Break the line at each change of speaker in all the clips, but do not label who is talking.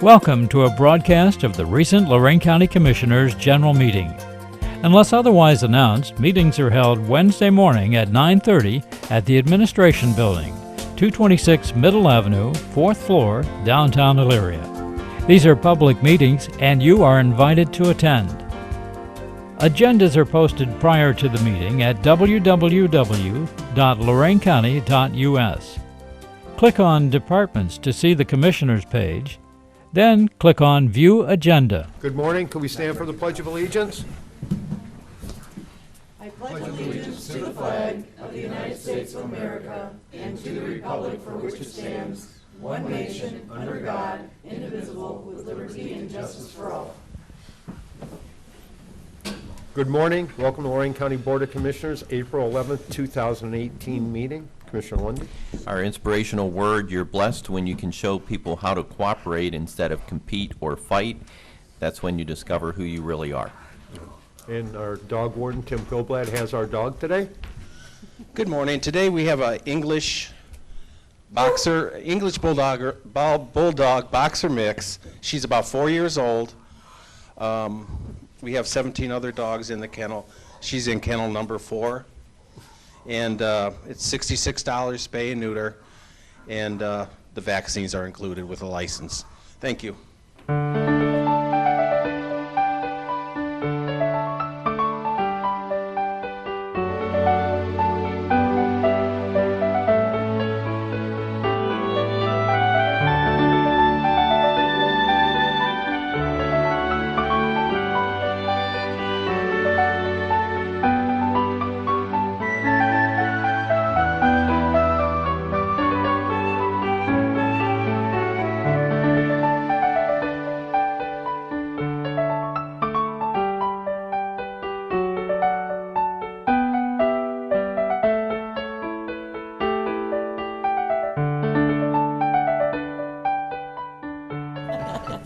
Welcome to a broadcast of the recent Lorraine County Commissioners' General Meeting. Unless otherwise announced, meetings are held Wednesday morning at 9:30 at the Administration Building, 226 Middle Avenue, 4th floor, downtown Elyria. These are public meetings and you are invited to attend. Agendas are posted prior to the meeting at www.loraincounty.us. Click on Departments to see the Commissioners page, then click on View Agenda.
Good morning. Could we stand for the Pledge of Allegiance? Good morning. Welcome to Lorraine County Board of Commissioners, April 11th, 2018 meeting. Commissioner Lundy.
Our inspirational word, you're blessed when you can show people how to cooperate instead of compete or fight. That's when you discover who you really are.
And our dog warden, Tim Goblad, has our dog today.
Good morning. Today we have a English boxer, English bulldog, bulldog boxer mix. She's about four years old. Um, we have 17 other dogs in the kennel. She's in kennel number four, and uh, it's $66 spay and neuter, and uh, the vaccines are included with a license. Thank you.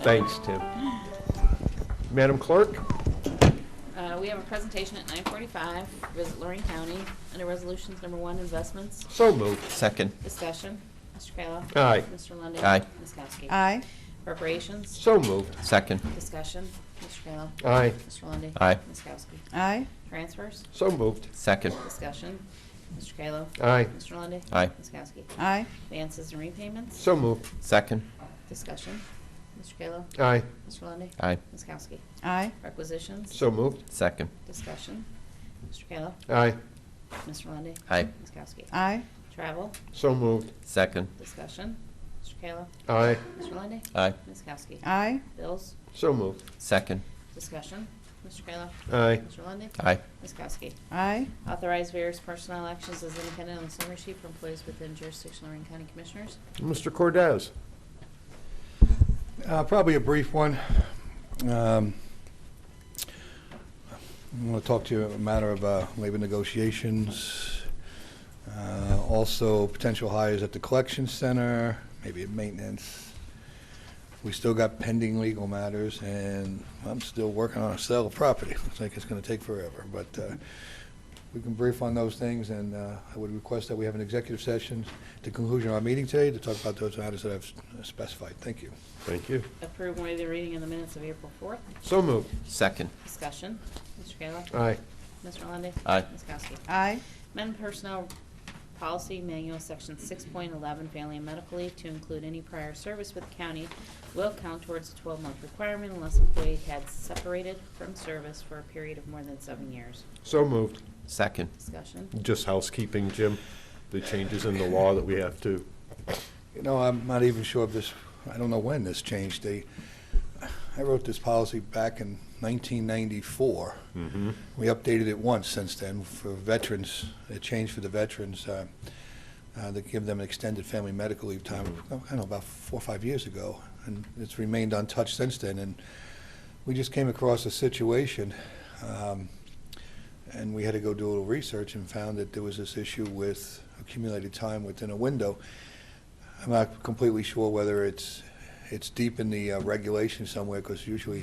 Thanks, Tim. Madam Clerk,
Uh, we have a presentation at nine forty-five, visit Lorraine County, under resolutions number one, investments,
so moved.
Second,
discussion, Mr. Kayla.
Aye.
Mr. Lundy.
Uh, Aye.
Ms. Kowski.
Aye.
Appropriations,
So moved.
second,
discussion, Mr. Kayla.
Aye.
Mr. Lundy.
Aye.
Ms. Kowski.
Aye.
Transfers,
So moved.
second,
discussion, Mr. Kayla.
Aye.
Mr. Lundy.
Aye.
Ms. Kowski.
Aye.
Advances and repayments,
So moved.
second,
discussion, Mr. Kayla.
Aye.
Mr. Lundy.
Aye.
Ms. Kowski.
Aye.
Requisitions,
So moved.
second,
discussion, Mr. Kayla.
Aye.
Mr. Lundy.
Aye.
Ms. Kowski.
Aye.
Travel,
So moved.
second,
Discussion. Mr. Kayla.
Aye.
Mr. Lundey.
Aye.
Ms. Kowski.
Aye.
Bills.
So moved.
second,
Discussion. Mr. Kayla.
Aye.
Mr. Lundey.
aye,
Ms. Kowski.
Aye.
Authorize various personnel actions as independent on the summary sheet for employees within jurisdiction of Lorraine County Commissioners.
Mr. Cordez.
Uh, Probably a brief one. Um, I want to talk to you a matter of uh, labor negotiations, uh, also potential hires at the collection center, maybe at maintenance. We still got pending legal matters, and I'm still working on a sale of property. Looks like it's going to take forever, but uh, we can brief on those things, and uh, I would request that we have an executive session at the conclusion of our meeting today to talk about those matters that I've specified. Thank you.
Thank you.
Approve and waive the reading in the minutes of April 4th.
So moved.
second,
Discussion. Mr. Kayla.
Aye.
Mr. Lundey.
Aye.
Ms. Kowski.
Aye.
Amend Personnel Policy Manual, Section 6.11, Family and Medical Leave, to include any prior service with the county will count towards the 12-month requirement unless employee had separated from service for a period of more than seven years.
So moved.
second,
Discussion.
Just housekeeping, Jim, the changes in the law that we have to.
You know, I'm not even sure if this, I don't know when this changed. They, I wrote this policy back in 1994. We updated it once since then for veterans, it changed for the veterans, uh, uh, that give them extended family medical leave time, I don't know, about four or five years ago, and it's remained untouched since then, and we just came across a situation, um, and we had to go do a little research and found that there was this issue with accumulated time within a window. I'm not completely sure whether it's, it's deep in the uh, regulation somewhere, because usually